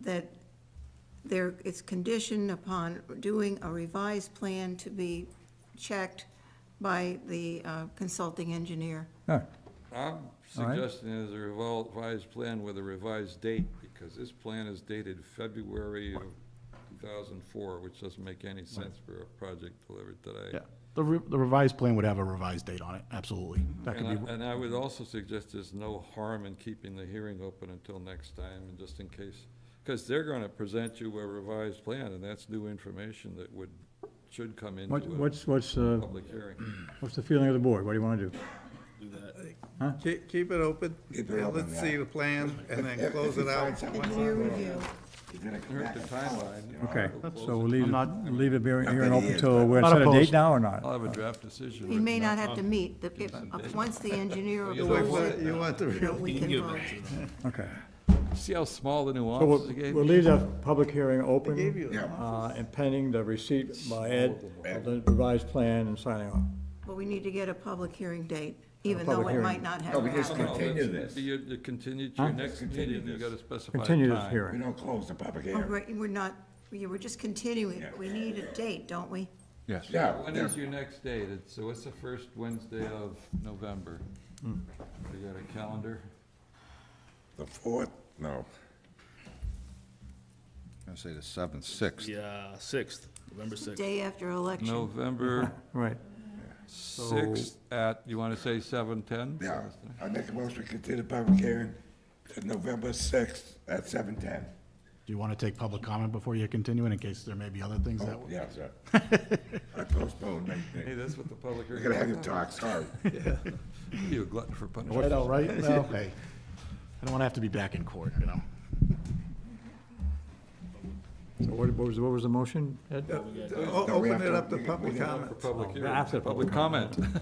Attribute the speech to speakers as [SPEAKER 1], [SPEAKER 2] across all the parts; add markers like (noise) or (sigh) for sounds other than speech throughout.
[SPEAKER 1] that there, it's conditioned upon doing a revised plan to be checked by the uh, consulting engineer.
[SPEAKER 2] All right,
[SPEAKER 3] I'm
[SPEAKER 2] right.
[SPEAKER 3] suggesting is a revised plan with a revised date, because this plan is dated February of 2004, which doesn't make any sense for a project delivered today.
[SPEAKER 4] Yeah, the re- the revised plan would have a revised date on it, absolutely. That
[SPEAKER 3] And
[SPEAKER 4] could
[SPEAKER 3] I,
[SPEAKER 4] be,
[SPEAKER 3] and I
[SPEAKER 2] Mhm.
[SPEAKER 3] would also suggest there's no harm in keeping the hearing open until next time, and just in case, because they're gonna present you a revised plan, and that's new information that would, should come into
[SPEAKER 2] What-
[SPEAKER 3] a
[SPEAKER 2] what's, what's, uh,
[SPEAKER 3] public hearing.
[SPEAKER 2] what's the feeling of the board? What do you want to do?
[SPEAKER 5] Keep, keep it open.
[SPEAKER 6] Keep it open,
[SPEAKER 5] Let's
[SPEAKER 6] yeah.
[SPEAKER 5] see the plan and then close it out.
[SPEAKER 1] Engineer review.
[SPEAKER 6] He's gonna come
[SPEAKER 3] Here's
[SPEAKER 6] back
[SPEAKER 3] the
[SPEAKER 6] and tell us,
[SPEAKER 3] timeline.
[SPEAKER 6] you know.
[SPEAKER 2] Okay,
[SPEAKER 3] That's-
[SPEAKER 2] so we'll leave,
[SPEAKER 4] I'm
[SPEAKER 2] it-
[SPEAKER 4] not-
[SPEAKER 2] leave it bearing,
[SPEAKER 6] Not
[SPEAKER 2] hearing
[SPEAKER 6] that he
[SPEAKER 2] open
[SPEAKER 6] is,
[SPEAKER 2] till,
[SPEAKER 6] but-
[SPEAKER 2] we're
[SPEAKER 4] Not
[SPEAKER 2] set a date
[SPEAKER 4] opposed.
[SPEAKER 2] now or not? Uh,
[SPEAKER 3] I'll have a draft decision.
[SPEAKER 1] He may not have to meet, the, if- uh, once the engineer
[SPEAKER 5] You want-
[SPEAKER 1] approves it,
[SPEAKER 5] You want the
[SPEAKER 1] you know,
[SPEAKER 5] real,
[SPEAKER 1] we can vote.
[SPEAKER 2] Okay.
[SPEAKER 3] See how small the
[SPEAKER 2] So we'll,
[SPEAKER 3] nuances gave
[SPEAKER 2] we'll
[SPEAKER 3] you?
[SPEAKER 2] leave the public hearing
[SPEAKER 5] gave
[SPEAKER 2] open,
[SPEAKER 5] you
[SPEAKER 6] Yeah,
[SPEAKER 2] uh, and pending the receipt by Ed of the revised plan and signing off.
[SPEAKER 1] But we need to get a public hearing date, even though
[SPEAKER 2] public
[SPEAKER 1] it
[SPEAKER 2] hearing.
[SPEAKER 1] might not
[SPEAKER 6] No,
[SPEAKER 1] have
[SPEAKER 6] we just
[SPEAKER 1] happened.
[SPEAKER 6] continue
[SPEAKER 3] That's-
[SPEAKER 6] this.
[SPEAKER 3] You you continue to your next
[SPEAKER 6] Continue
[SPEAKER 3] meeting, you
[SPEAKER 6] this.
[SPEAKER 3] gotta specify a time.
[SPEAKER 2] Continue this
[SPEAKER 6] we
[SPEAKER 2] hearing.
[SPEAKER 6] don't close the public
[SPEAKER 1] Oh,
[SPEAKER 6] hearing.
[SPEAKER 1] right, We're not, we were just continuing, it. we need a date, don't we?
[SPEAKER 2] Yes.
[SPEAKER 6] Yeah,
[SPEAKER 3] When
[SPEAKER 6] yeah.
[SPEAKER 3] is your next date? It's- So what's the first Wednesday of November?
[SPEAKER 2] Hmm.
[SPEAKER 3] You got a calendar?
[SPEAKER 6] the fourth, no,
[SPEAKER 7] I'm gonna say the seventh, sixth.
[SPEAKER 8] Yeah, sixth, November sixth.
[SPEAKER 1] Day after election.
[SPEAKER 2] (laughs)
[SPEAKER 3] November
[SPEAKER 2] Right.
[SPEAKER 3] 6th at, you wanna say 7:10?
[SPEAKER 6] yeah. I make a motion to continue the public hearing to November sixth at seven ten.
[SPEAKER 4] do you want to take public comment before you continue it in case there may be other things that?
[SPEAKER 6] Oh, Yeah, sir. I postponed my
[SPEAKER 3] Hey,
[SPEAKER 6] thing.
[SPEAKER 3] that's what the public
[SPEAKER 6] We're
[SPEAKER 3] hearing.
[SPEAKER 6] gonna have you talk, sorry.
[SPEAKER 3] (laughs) You a glutton for punishment.
[SPEAKER 4] Right, all oh, right, well, hey, I don't want to have to be back in court, you know?
[SPEAKER 2] So what what was, what was the motion, Ed?
[SPEAKER 5] o-
[SPEAKER 6] No, we have
[SPEAKER 5] open it
[SPEAKER 6] to-
[SPEAKER 5] up to
[SPEAKER 6] we- we
[SPEAKER 5] public
[SPEAKER 6] have-
[SPEAKER 5] comment.
[SPEAKER 3] For public hearing,
[SPEAKER 2] Oh, after
[SPEAKER 3] public comment. (laughs)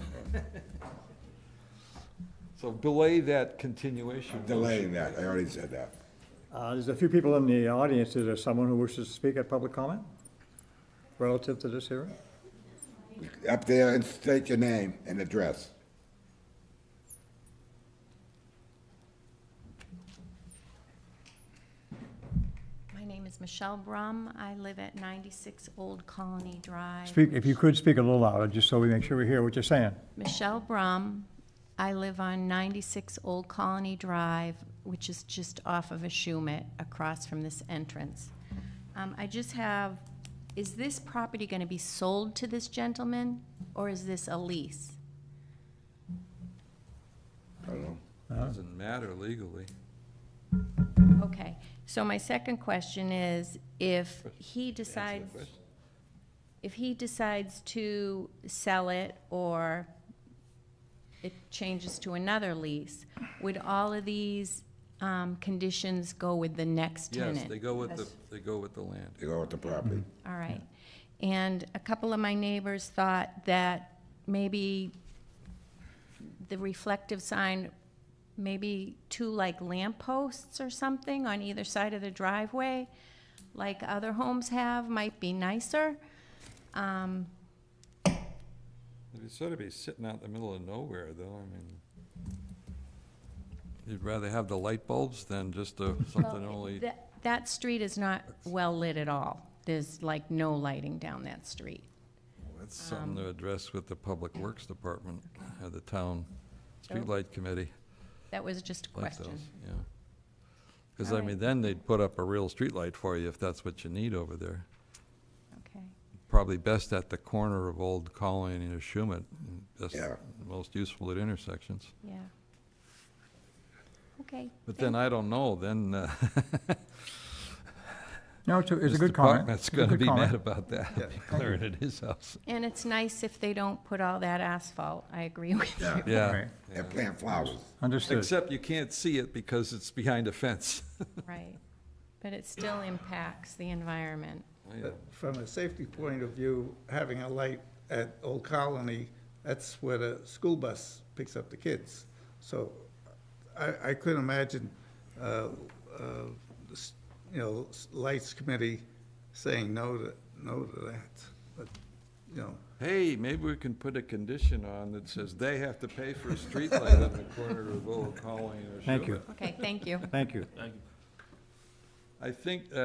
[SPEAKER 3] So delay that continuation.
[SPEAKER 6] Delaying that, I already said that.
[SPEAKER 2] Uh, There's a few people in the audience. Is there someone who wishes to speak at public comment relative to this hearing?
[SPEAKER 6] Up there and state your name and address.
[SPEAKER 9] My name is Michelle Brum. I live at 96 Old Colony Drive.
[SPEAKER 2] Speak, if you could, speak a little louder, just so we make sure we hear what you're saying.
[SPEAKER 9] Michelle Brum. I live on 96 Old Colony Drive, which is just off of Ashumet, across from this entrance. Um, I just have, is this property going to be sold to this gentleman, or is this a lease?
[SPEAKER 3] Doesn't matter legally.
[SPEAKER 9] Okay, so my second question is, if he decides,
[SPEAKER 3] question.
[SPEAKER 9] if he decides to sell it or it changes to another lease, would all of these um, conditions go with the next tenant?
[SPEAKER 3] Yes, they go with the, they go with the land.
[SPEAKER 6] You go with the property.
[SPEAKER 3] Mm-hmm.
[SPEAKER 9] All right. And a couple of my neighbors thought that maybe the reflective sign, maybe two like lampposts or something on either side of the driveway, like other homes have, might be nicer. Um,
[SPEAKER 3] It'd sort of be sitting out in the middle of nowhere, though, I mean, you'd rather have the light bulbs than just a, something only,
[SPEAKER 9] That, that street is not well-lit at all. There's like no lighting down that street.
[SPEAKER 3] that's something to address with the Public Works Department, or the town streetlight committee,
[SPEAKER 9] That was just a
[SPEAKER 3] like those,
[SPEAKER 9] question.
[SPEAKER 3] yeah. Because, I
[SPEAKER 9] Alright.
[SPEAKER 3] mean, then they'd put up a real streetlight for you if that's what you need over there.
[SPEAKER 9] Okay.
[SPEAKER 3] Probably best at the corner of Old Colony and Schumett, best,
[SPEAKER 6] Yeah.
[SPEAKER 3] most useful at intersections.
[SPEAKER 9] Yeah. Okay.
[SPEAKER 3] But then, I don't know, then, uh, (laughs)
[SPEAKER 2] No, it's a, it's a
[SPEAKER 3] this
[SPEAKER 2] good comment.
[SPEAKER 3] department's
[SPEAKER 2] It's a
[SPEAKER 3] gonna
[SPEAKER 2] good
[SPEAKER 3] be
[SPEAKER 2] comment.
[SPEAKER 3] mad about that, declaring it his
[SPEAKER 2] (laughs)
[SPEAKER 3] house.
[SPEAKER 9] And it's nice if they don't put all that asphalt, I agree with you.
[SPEAKER 6] Yeah.
[SPEAKER 3] Yeah,
[SPEAKER 2] Right.
[SPEAKER 6] And plant flowers.
[SPEAKER 2] Understood.
[SPEAKER 3] except you can't see it because it's behind a fence. (laughs)
[SPEAKER 9] Right. But it still impacts the environment.
[SPEAKER 5] From a safety point of view, having a light at Old Colony, that's where the school bus picks up the kids. So I, I couldn't imagine, uh, uh, s- you know, s- Lights Committee saying no to, no to that. But, you know,
[SPEAKER 3] Hey, maybe we can put a condition on that says they have to pay for a streetlight on the corner of Old Colony or
[SPEAKER 2] Thank you.
[SPEAKER 3] Sugar.
[SPEAKER 9] Okay, thank you.
[SPEAKER 2] Thank you.
[SPEAKER 3] I think, uh,